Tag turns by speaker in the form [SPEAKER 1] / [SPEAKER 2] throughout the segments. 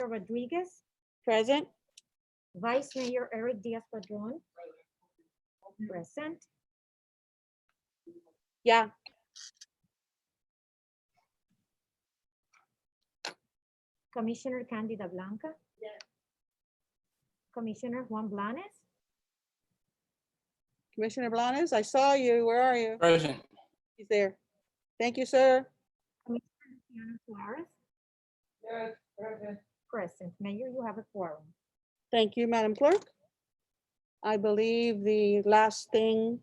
[SPEAKER 1] Rodriguez,
[SPEAKER 2] Present.
[SPEAKER 1] Vice Mayor Eric Diaz-Padrón. Present.
[SPEAKER 2] Yeah.
[SPEAKER 1] Commissioner Candida Blanca. Commissioner Juan Blanes,
[SPEAKER 2] Commissioner Blanes, I saw you. Where are you?
[SPEAKER 3] Present.
[SPEAKER 2] He's there. Thank you, sir.
[SPEAKER 1] Luciano Suarez. Present. Mayor, you have a quorum.
[SPEAKER 2] Thank you, Madam Clerk. I believe the last thing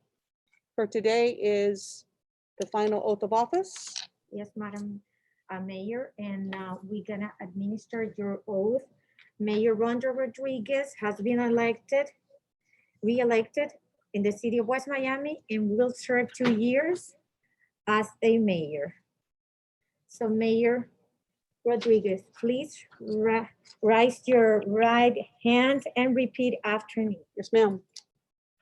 [SPEAKER 2] for today is the final oath of office.
[SPEAKER 1] Yes, Madam uh, Mayor, and uh, we're gonna administer your oath. Mayor Rhonda Rodriguez has been elected, re-elected in the city of West Miami and will serve two years as a mayor. So Mayor Rodriguez, please ri- raise your right hand and repeat after me.
[SPEAKER 2] Yes, ma'am.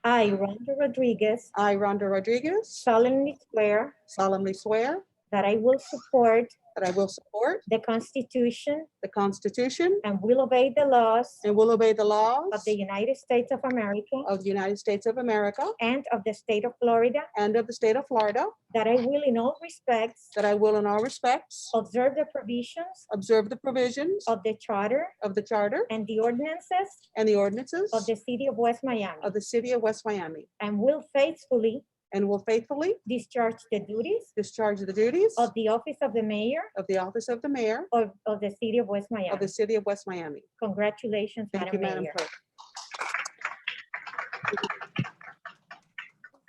[SPEAKER 1] I, Rhonda Rodriguez,
[SPEAKER 2] I, Rhonda Rodriguez,
[SPEAKER 1] solemnly swear
[SPEAKER 2] solemnly swear
[SPEAKER 1] that I will support
[SPEAKER 2] that I will support
[SPEAKER 1] the Constitution
[SPEAKER 2] the Constitution
[SPEAKER 1] And will obey the laws
[SPEAKER 2] and will obey the laws
[SPEAKER 1] of the United States of America
[SPEAKER 2] of the United States of America
[SPEAKER 1] and of the state of Florida,
[SPEAKER 2] and of the state of Florida,
[SPEAKER 1] that I will in all respects
[SPEAKER 2] that I will in all respects
[SPEAKER 1] observe the provisions
[SPEAKER 2] observe the provisions
[SPEAKER 1] of the charter
[SPEAKER 2] of the charter
[SPEAKER 1] and the ordinances
[SPEAKER 2] and the ordinances
[SPEAKER 1] of the city of West Miami,
[SPEAKER 2] of the city of West Miami
[SPEAKER 1] and will faithfully
[SPEAKER 2] and will faithfully
[SPEAKER 1] discharge the duties
[SPEAKER 2] discharge the duties
[SPEAKER 1] of the office of the mayor
[SPEAKER 2] of the office of the mayor
[SPEAKER 1] of, of the city of West
[SPEAKER 2] of
[SPEAKER 1] Miami.
[SPEAKER 2] the city of West Miami.
[SPEAKER 1] Congratulations,
[SPEAKER 2] Thank you,
[SPEAKER 1] Madam Mayor.
[SPEAKER 2] Madam Clerk.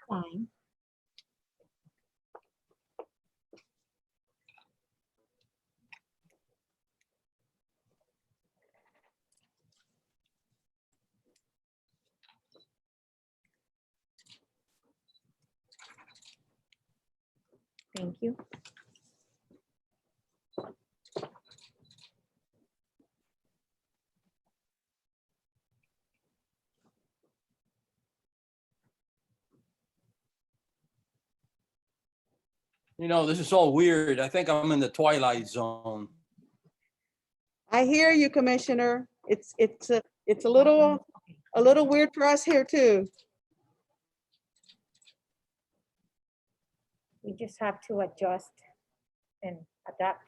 [SPEAKER 1] Fine. Thank you.
[SPEAKER 3] You know, this is all weird. I think I'm in the twilight zone.
[SPEAKER 2] I hear you, Commissioner. It's, it's, a it's a little, a little weird for us here too.
[SPEAKER 1] We just have to adjust and adapt.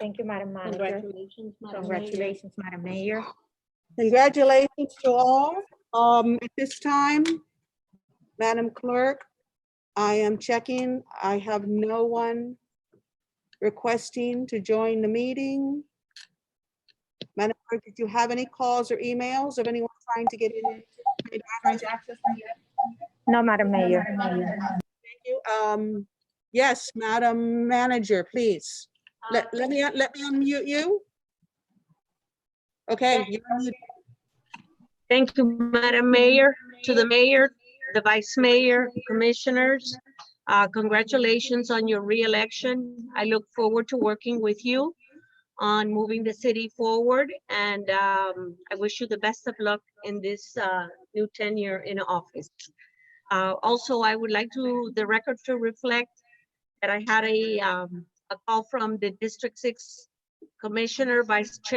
[SPEAKER 1] Thank you, Madam Manager.
[SPEAKER 2] Congratulations,
[SPEAKER 1] Congratulations, Madam Mayor.
[SPEAKER 2] Congratulations to all. Um, at this time, Madam Clerk, I am checking. I have no one requesting to join the meeting. Madam Clerk, did you have any calls or emails of anyone trying to get in? Trying to access the
[SPEAKER 1] No, Madam Mayor.
[SPEAKER 2] venue? Um, yes, Madam Manager, please. Let, let me, let me unmute you. Okay, you're unmuted.
[SPEAKER 4] Thank you, Madam Mayor, to the mayor, the vice mayor, commissioners. Uh, Congratulations on your reelection. I look forward to working with you on moving the city forward, and um, I wish you the best of luck in this uh, new tenure in office. Uh, Also, I would like to, the record to reflect that I had a um, a call from the District Six Commissioner, Vice Chair